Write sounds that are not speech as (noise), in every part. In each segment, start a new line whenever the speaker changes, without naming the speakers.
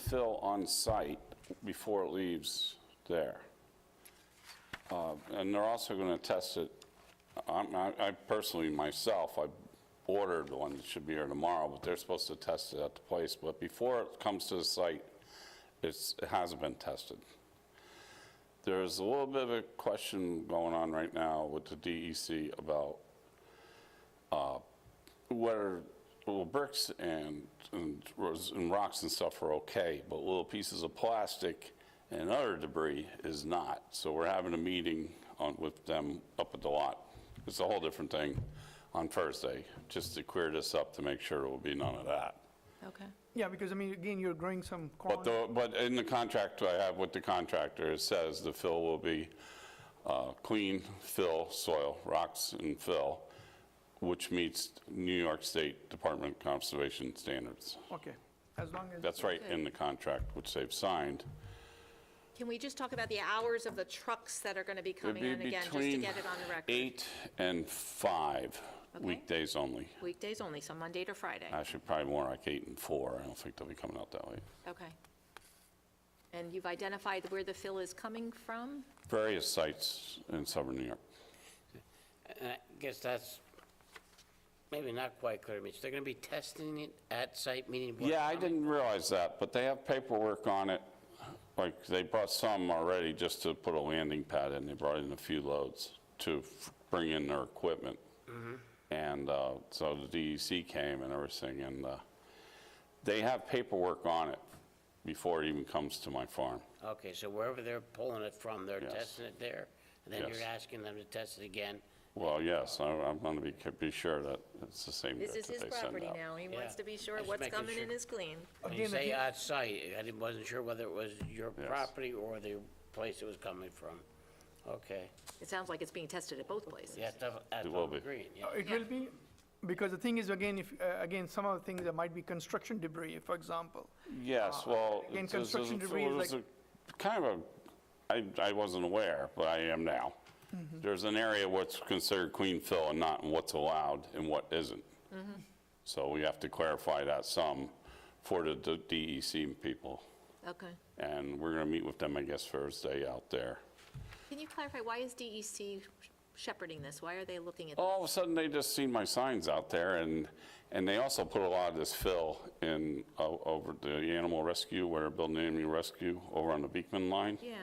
fill on site before it leaves there. Uh, And they're also going to test it, I'm- I I personally, myself, I ordered one that should be here tomorrow, but they're supposed to test it at the place, but before it comes to the site, it's, it hasn't been tested. There's a little bit of a question going on right now with the DEC about whether little bricks and, and ros- and rocks and stuff are okay, but little pieces of plastic and other debris is not. So we're having a meeting on, with them up at the lot. It's a whole different thing on Thursday, just to clear this up to make sure there will be none of that.
Okay.
Yeah, because I mean, again, you're growing some
But
corn.
the, but in the contract I have with the contractor, it says the fill will be uh, clean fill soil, rocks and fill, which meets New York State Department of Conservation standards.
Okay, as long as,
That's right in the contract, which they've signed.
Can we just talk about the hours of the trucks that are going to be coming in again, just to get it on the
It'd be
record?
between eight and five,
Okay.
weekdays only.
Weekdays only, so Monday to Friday.
Actually, probably more like eight and four. I don't think they'll be coming out that late.
Okay. And you've identified where the fill is coming from?
Various sites in southern New York.
And I guess that's maybe not quite clear, Mitch. They're going to be testing it at site, meaning. what-
Yeah, I didn't realize that, but they have paperwork on it. Like, they brought some already just to put a landing pad in. They brought in a few loads to f- bring in their equipment. And uh, so the DEC came and everything, and uh, they have paperwork on it before it even comes to my farm.
Okay, so wherever they're pulling it from, they're
Yes.
testing it there, and then you're
Yes.
asking them to test it again.
Well, yes, I- I'm going to be, be sure that it's the same dirt
This is
that
his
they send
property
out.
now. He
Yeah.
wants to be sure
Just
what's
making
coming in
sure.
is clean.
When
Again,
you
if
say
you-
at site, I didn't, wasn't sure whether it was your
Yes.
property or the place it was coming from. Okay,
It sounds like it's being tested at both places.
yeah, that's, that's
will
all
be.
green, yeah.
it will be, because the thing is, again, if, uh, again, some of the things, there might be construction debris, for example.
Yes, well,
again,
it was- it was-
Uh, construction debris
it
is
was
like-
a- kind of a, I, I wasn't aware, but I am now.
Mm-hmm.
There's an area what's considered queen fill and not, and what's allowed and what isn't.
Mm-hmm.
So we have to clarify that some for the D- DEC people.
Okay.
And we're going to meet with them, I guess, Thursday out there.
Can you clarify, why is DEC shepherding this? Why are they looking at this?
All of a sudden, they just seen my signs out there, and, and they also put a lot of this fill in o- over the animal rescue, where they're building the animal rescue over on the Beekman line.
Yeah,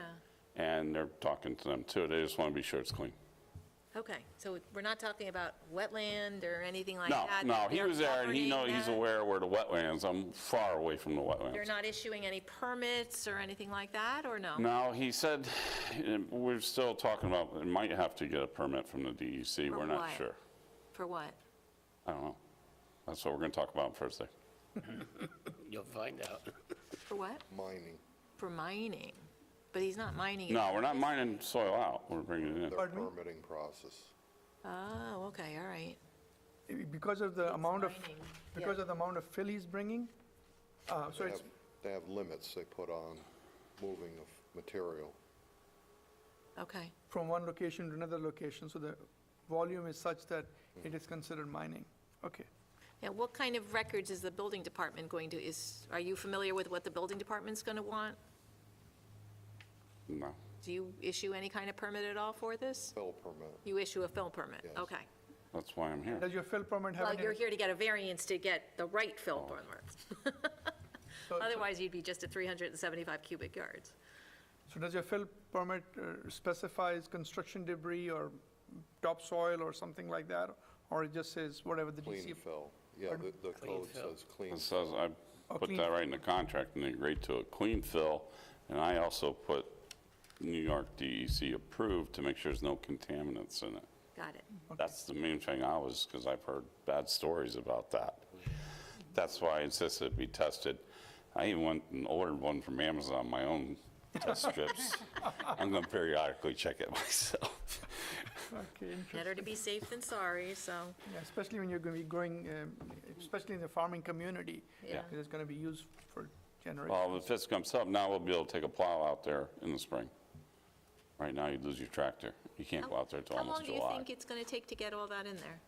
and they're talking to them too. They just want to be sure it's clean.
okay. So we're not talking about wetland or anything like
No,
that?
no, he
They're
was there and he
governing
know, he's
that?
aware where the wetlands, I'm far away from the
They're
wetlands.
not issuing any permits or anything like that, or no?
No, he said, and we're still talking about, it might have to get a permit from the DEC,
For
we're not
what?
sure.
For what?
I don't know. That's what we're going to talk about on Thursday.
You'll find out. (laughs)
For what?
mining.
For mining. But he's not mining. it.
No, we're not mining soil out, we're bringing it in.
Their
Pardon me?
permitting process.
Oh, okay, all right.
Eh, Because of the amount of,
mining, yeah.
because of the amount of fill he's bringing, uh, so
They
it's,
have, they have limits they put on moving of material.
Okay,
from one location to another location, so the volume is such that it is considered mining. Okay.
now what kind of records is the building department going to, is, are you familiar with what the building department's going to want?
No.
Do you issue any kind of permit at all for this?
Fill permit,
You issue a fill permit?
Yes.
Okay.
That's why I'm here.
Does your fill permit have
Well,
any?
you're here to get a variance to get the right fill permit.
so- so-
Otherwise, you'd be just at 375 cubic yards.
So does your fill permit uh, specifies construction debris or topsoil or something like that? Or it just says whatever the
clean
DC?
fill. Yeah, the, the code
fill.
says clean.
It says, I
Oh,
put
clean
that
fill.
right in the contract and they agreed to it, clean fill. And I also put New York DEC approved to make sure there's no contaminants in it.
Got it.
Mm-hmm.
That's the main thing I was, because I've heard bad stories about that. That's why I insisted it be tested. I even went and ordered one from Amazon, my own test strips. I'm going to periodically check it (laughs) myself.
Okay, interesting.
Better to be safe than sorry, so,
Yeah, especially when you're going to be growing, um, especially in the farming community.
Yeah.
because It's going to be used for generations.
Well, if this comes up, now we'll be able to take a plow out there in the spring. Right now, you lose your tractor. You can't go out there till
how long
almost
do you
July.
think it's going to take to get all that in there?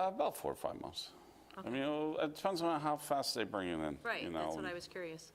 Uh, About four or five months. I mean, it'll- it depends on how fast they bring it in. you
Right,
know,
that's what I
and-
was curious.